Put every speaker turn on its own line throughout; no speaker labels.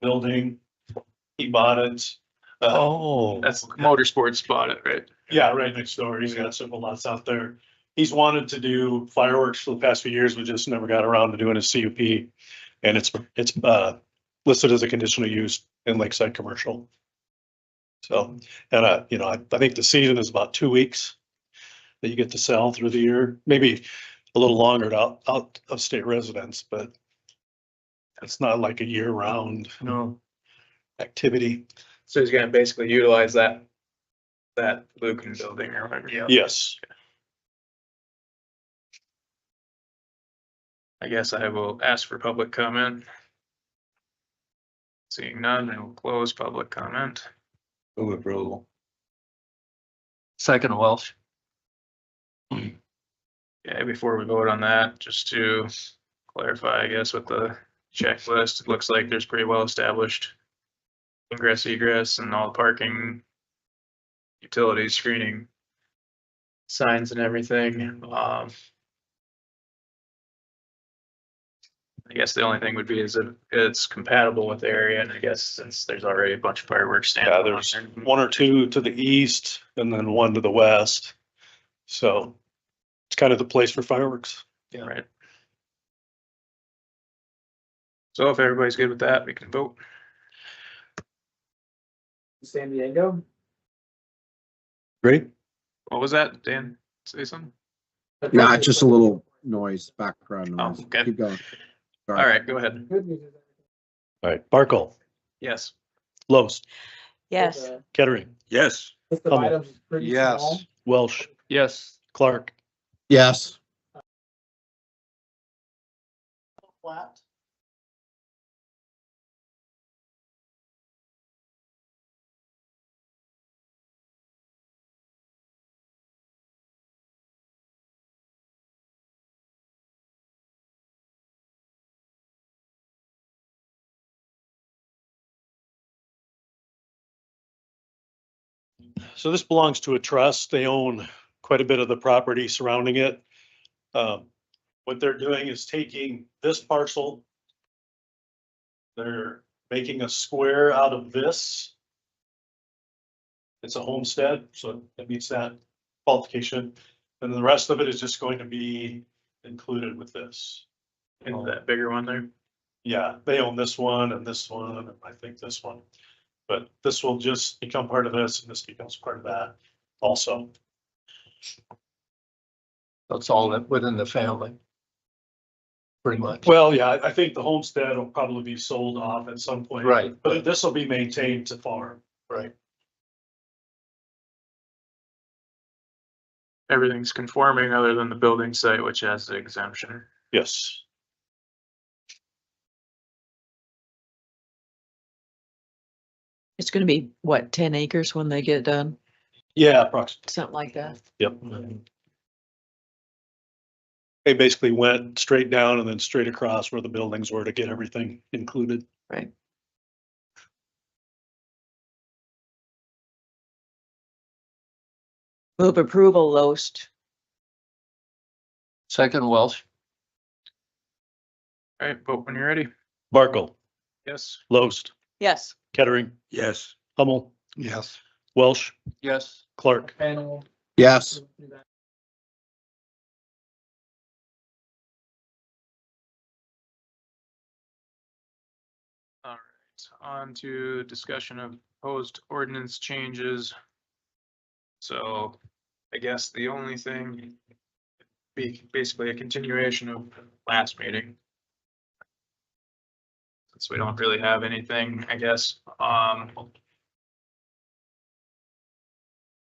building. He bought it. Uh,
Oh.
That's motorsports bought it, right?
yeah, right next door. He's got several lots out there. He's wanted to do fireworks for the past few years, but just never got around to doing a CUP. And it's, it's, uh, listed as a conditional use in Lakeside Commercial. So, and I, you know, I, I think the season is about two weeks that you get to sell through the year, maybe a little longer to out, out of state residents, but it's not like a year-round
No.
activity.
So he's gonna basically utilize that, that Lucan building or whatever. Yeah.
Yes.
I guess I will ask for public comment. Seeing none, I will close public comment.
Move approval.
Second Welsh.
Yeah, before we vote on that, just to clarify, I guess, with the checklist, it looks like there's pretty well established ingress egress and all parking, utilities, screening, signs and everything. Um, I guess the only thing would be is if it's compatible with the area, and I guess since there's already a bunch of fireworks stands.
Yeah, there's one or two to the east and then one to the west. So it's kind of the place for fireworks.
Right. So if everybody's good with that, we can vote.
San Diego,
Great.
What was that, Dan? Say something?
Nah, it's just a little noise, background
Oh,
noise.
okay.
Keep going.
All
Sorry.
right, go ahead.
good news is that-
All right, Barkle,
Yes.
Los,
Yes.
the uh,
Kettering,
Yes.
List of
Hummel.
items is pretty
Yes.
small.
Welsh,
Yes.
Clark,
Yes,
Flat.
So this belongs to a trust. They own quite a bit of the property surrounding it. Um, what they're doing is taking this parcel. They're making a square out of this. It's a homestead, so it meets that qualification. And the rest of it is just going to be included with this.
And that bigger one there.
Yeah, they own this one and this one, and I think this one. But this will just become part of this, and this becomes part of that also.
That's all that within the family. Pretty much.
Well, yeah, I I think the homestead will probably be sold off at some point.
Right.
But this will be maintained to farm.
Right.
Everything's conforming other than the building site, which has the exemption.
Yes.
It's gonna be, what, ten acres when they get done?
Yeah, approximately.
Something like that?
Yep. They basically went straight down and then straight across where the buildings were to get everything included.
Right. Move approval, Loest.
Second Welsh.
All right, vote when you're ready.
Barkle,
Yes.
Loest,
Yes.
Kettering,
Yes.
Hummel,
Yes.
Welsh,
Yes.
Clark.
Panel.
yes,
All right, on to discussion of proposed ordinance changes. So I guess the only thing be basically a continuation of last meeting. Since we don't really have anything, I guess, um.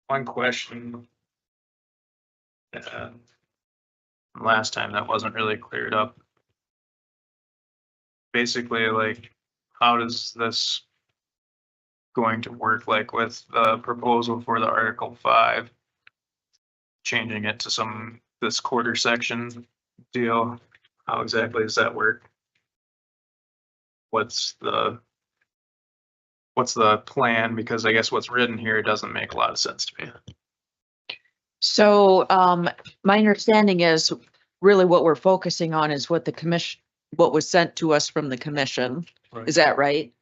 One question. uh, Last time that wasn't really cleared up. Basically, like, how does this going to work like with the proposal for the Article five? Changing it to some, this quarter section deal, how exactly does that work? What's the what's the plan? Because I guess what's written here doesn't make a lot of sense to me.
So, um, my understanding is really what we're focusing on is what the commission, what was sent to us from the commission. Is that right?